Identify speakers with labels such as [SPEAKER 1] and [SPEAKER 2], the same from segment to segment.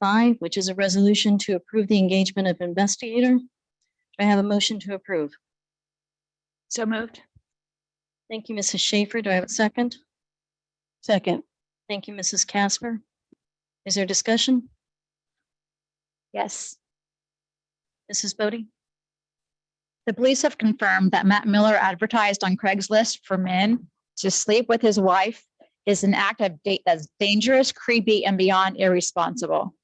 [SPEAKER 1] five, which is a resolution to approve the engagement of investigator. Do I have a motion to approve?
[SPEAKER 2] So moved.
[SPEAKER 1] Thank you, Mrs. Schaefer. Do I have a second?
[SPEAKER 3] Second.
[SPEAKER 1] Thank you, Mrs. Casper. Is there discussion?
[SPEAKER 2] Yes.
[SPEAKER 1] Mrs. Bodie?
[SPEAKER 2] The police have confirmed that Matt Miller advertised on Craigslist for men to sleep with his wife is an act of date that's dangerous, creepy, and beyond irresponsible.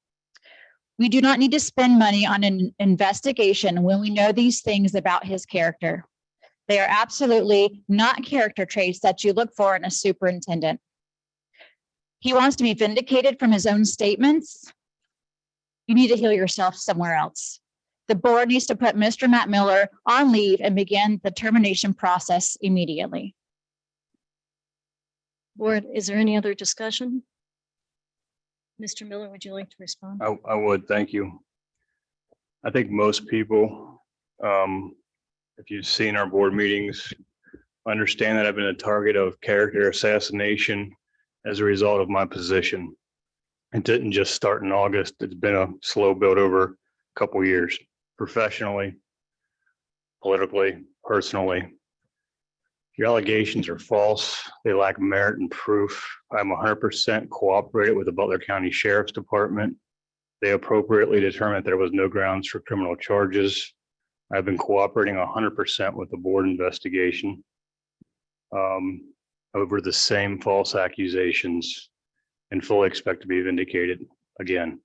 [SPEAKER 2] We do not need to spend money on an investigation when we know these things about his character. They are absolutely not character traits that you look for in a superintendent. He wants to be vindicated from his own statements. You need to heal yourself somewhere else the board needs to put Mr. Matt Miller on leave and begin the termination process immediately.
[SPEAKER 1] Board, is there any other discussion? Mr. Miller, would you like to respond?
[SPEAKER 4] I, I would, thank you. I think most people, um, if you've seen our board meetings, understand that I've been a target of character assassination as a result of my position. It didn't just start in August. It's been a slow build over a couple years professionally, politically, personally. Your allegations are false. They lack merit and proof. I'm hundred percent cooperated with the Butler County Sheriff's Department. They appropriately determined there was no grounds for criminal charges. I've been cooperating hundred percent with the board investigation um, over the same false accusations and fully expect to be vindicated again.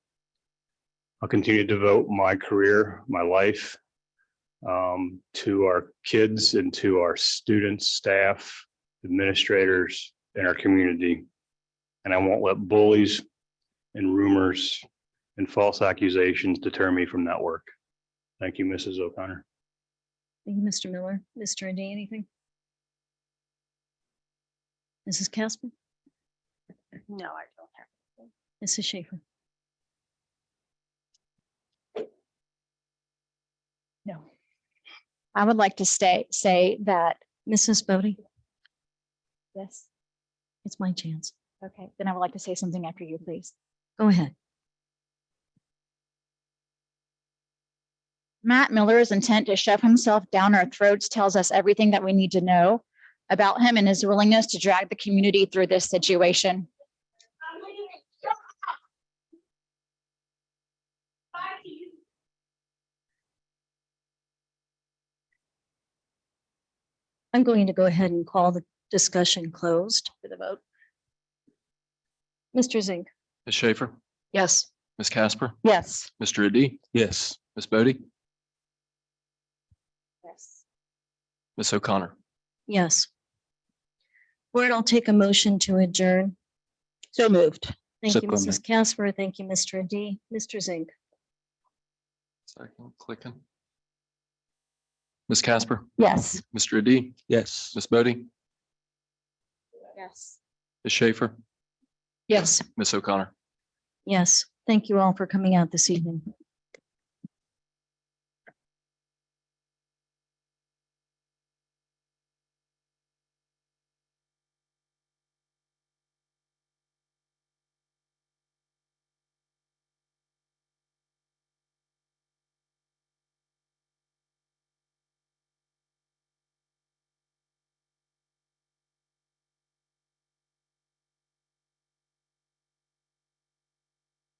[SPEAKER 4] I'll continue to devote my career, my life um, to our kids and to our students, staff, administrators, and our community. And I won't let bullies and rumors and false accusations deter me from that work. Thank you, Mrs. O'Connor.
[SPEAKER 1] Thank you, Mr. Miller. Mr. Indy, anything? Mrs. Casper?
[SPEAKER 3] No, I don't have.
[SPEAKER 1] Mrs. Schaefer?
[SPEAKER 2] I would like to stay, say that,
[SPEAKER 1] Mrs. Bodie?
[SPEAKER 2] yes,
[SPEAKER 1] It's my chance.
[SPEAKER 2] okay, then I would like to say something after you, please.
[SPEAKER 1] Go ahead.
[SPEAKER 2] Matt Miller's intent to shove himself down our throats tells us everything that we need to know about him and his willingness to drag the community through this situation.
[SPEAKER 1] I'm going to go ahead and call the discussion closed for the vote. Mr. Zink?
[SPEAKER 5] Ms. Schaefer,
[SPEAKER 3] Yes.
[SPEAKER 5] Ms. Casper,
[SPEAKER 2] Yes.
[SPEAKER 5] Mr. Adi. Yes. Ms. Bodie,
[SPEAKER 3] Yes.
[SPEAKER 5] Ms. O'Connor.
[SPEAKER 1] Yes. Board, I'll take a motion to adjourn.
[SPEAKER 3] So moved.
[SPEAKER 1] Thank you,
[SPEAKER 5] Second.
[SPEAKER 1] Mrs. Casper. Thank you, Mr. Adi. Mr. Zink?
[SPEAKER 5] Second, clicking. Ms. Casper,
[SPEAKER 2] Yes.
[SPEAKER 5] Mr. Adi. Yes. Ms. Bodie,
[SPEAKER 3] Yes.
[SPEAKER 5] Ms. Schaefer,
[SPEAKER 2] Yes.
[SPEAKER 5] Ms. O'Connor.
[SPEAKER 1] Yes. Thank you all for coming out this evening.